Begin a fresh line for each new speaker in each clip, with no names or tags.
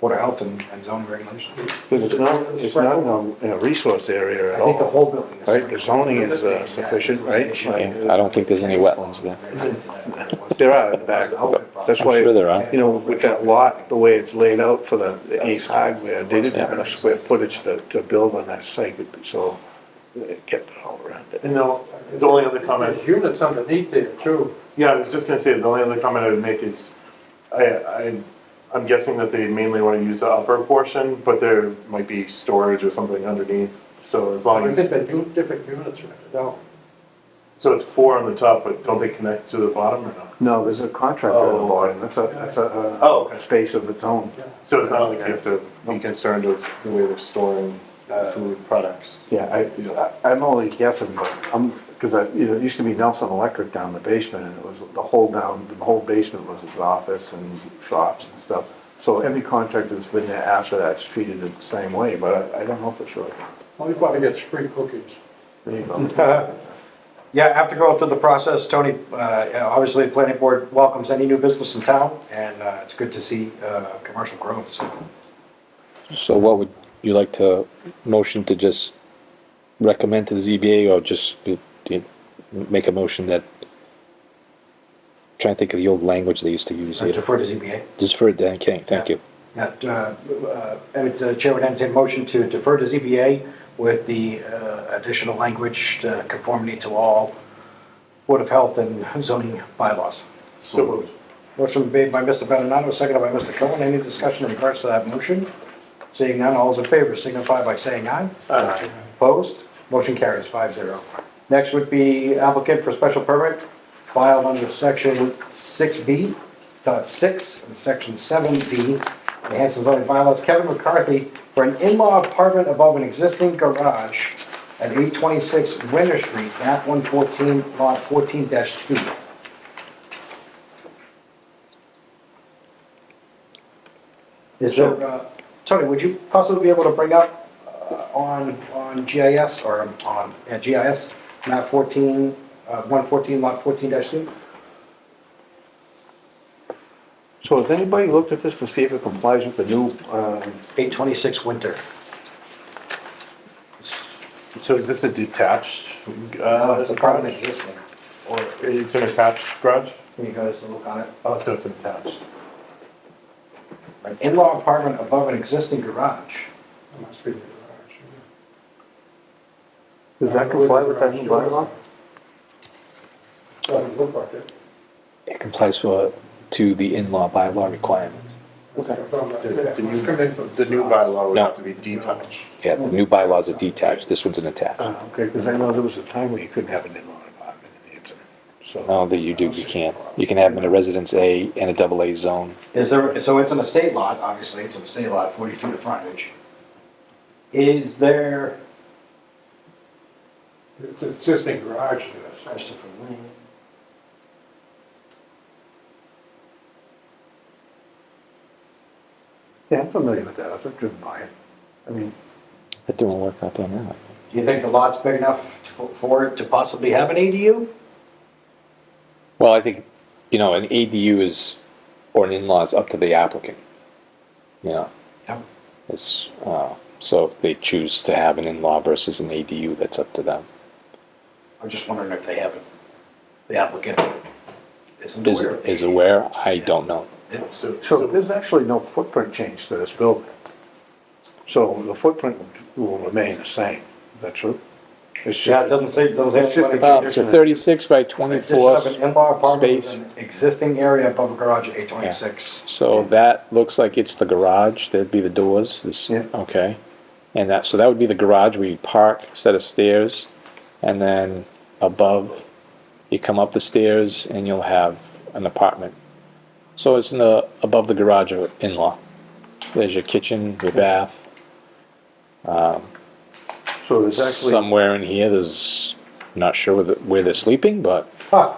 Board of Health and and zoning regulations.
Because it's not, it's not in a- in a resource area
I
at
think the
all.
whole building is.
Right, the zoning is, uh, sufficient, right?
Yeah, I don't think there's any wetlands there.
There are in the back, but that's why,
I'm sure there are.
you know, with that lot, the way it's laid out for the the Ace Hardware, they didn't have enough square footage to, to build on that site, so they kept it all around it.
And the, the only other comment,
There's units underneath there too.
yeah, I was just gonna say, the only other comment I would make is, I, I, I'm guessing that they mainly wanna use the upper portion, but there might be storage or something underneath, so as long
There's
as,
different, u- different units rented out.
so it's four on the top, but don't they connect to the bottom or not?
No, there's a contractor on the
Oh.
bottom, that's a, that's a, uh,
Oh, okay.
space of its own.
So it's not like you have to be concerned with the way they're storing uh, food products.
Yeah, I, I- I'm only guessing, but I'm, because I, you know, it used to be Nelson Electric down the basement, and it was, the whole down, the whole basement was his office and shops and stuff. So every contractor that's been there after that's treated it the same way, but I, I don't know for sure.
Well, you probably get free cookies.
There you go.
Yeah, after going through the process, Tony, uh, you know, obviously, the planning board welcomes any new business in town, and uh, it's good to see uh, commercial growth, so.
So what would you like to, motion to just recommend to the ZBA or just do- do you make a motion that, trying to think of the old language they used to use
I
here.
Defer to ZBA.
Just for Dan King, thank you.
Yeah, uh, uh, and the chair would entertain a motion to defer to ZBA with the uh, additional language uh, conformity to all Board of Health and zoning bylaws.
So moved.
Motion made by Mr. Benonato, seconded by Mr. Cohen. Any discussion in regards to that motion? Seeing none, all those in favor signify by saying aye.
Aye.
Opposed? Motion carries 5-0. Next would be applicant for special permit filed under section six B dot six and section seven B, the Hanson zoning bylaws, Kevin McCarthy for an in-law apartment above an existing garage at eight twenty-six Winter Street, map one fourteen, lot fourteen two. Is there, uh, Tony, would you possibly be able to bring up uh, on, on GIS or on, yeah, GIS, map 14, uh, 114, lot 14-2?
So has anybody looked at this to see if it complies with the new, uh,
826 Winter.
So is this a detached?
No,
uh,
It's a apartment existing.
Or it's an attached garage?
Can you guys look on it?
Oh, so it's an attached.
An In-law apartment above an existing garage.
That must be the garage.
does that comply with that new bylaw?
Doesn't look like it.
It complies for, to the in-law bylaw requirement.
Okay.
The- The new,
Coming from
the new bylaw would
No.
have to be detached.
Yeah, the new bylaws are detached, this one's an attached.
Uh, okay, because I know there was a time where you couldn't have an in-law apartment in Hanson, so.
No, that you do, you can't. You can have them in a residence A and a double A zone.
Is there, so it's an estate lot, obviously, it's an estate lot, 40 feet of frontage. Is there,
It's an existing garage there.
Christopher Lane.
Yeah, I'm familiar with that, I've driven by it. I mean,
They're doing work out there now.
do you think the lot's big enough for- for it to possibly have an ADU?
Well, I think, you know, an ADU is, or an in-law is up to the applicant. You know,
Yeah.
it's, uh, so if they choose to have an in-law versus an ADU, that's up to them.
I'm just wondering if they haven't, the applicant isn't
Is,
aware of
is
it.
aware, I don't know.
So,
So
so
there's actually no footprint change to this building. So the footprint will remain the same, is that true? It's
Yeah, it
just,
doesn't say, doesn't say.
It's just
anything
a-
about
Uh,
it.
it's a thirty-six by twenty-four,
Addition of an in-law apartment with
space.
an existing area above a garage at eight twenty-six.
so that looks like it's the garage, there'd be the doors, this,
Yeah.
okay. And that, so that would be the garage where you park, set of stairs, and then above, you come up the stairs and you'll have an apartment. So it's in the, above the garage or in-law. There's your kitchen, your bath,
so there's actually,
somewhere in here, there's, not sure where, the- where they're sleeping, but
Huh.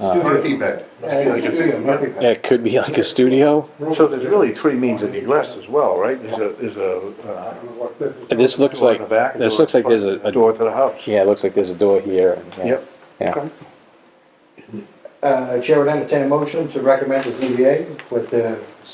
Murphy bed. Must be like a
Studio, Murphy bed.
it could be like a studio.
so there's really three means of egress as well, right? There's a, there's a. uh,
I don't know what this is.
This looks
door
like,
in the back,
this
door
looks like
in
there's
front,
a,
and
a,
Door to the house.
yeah, it looks like there's a door here. and- yeah.
Yep.
Yeah.
Okay.
Uh, Chair would entertain a motion to recommend the ZBA with the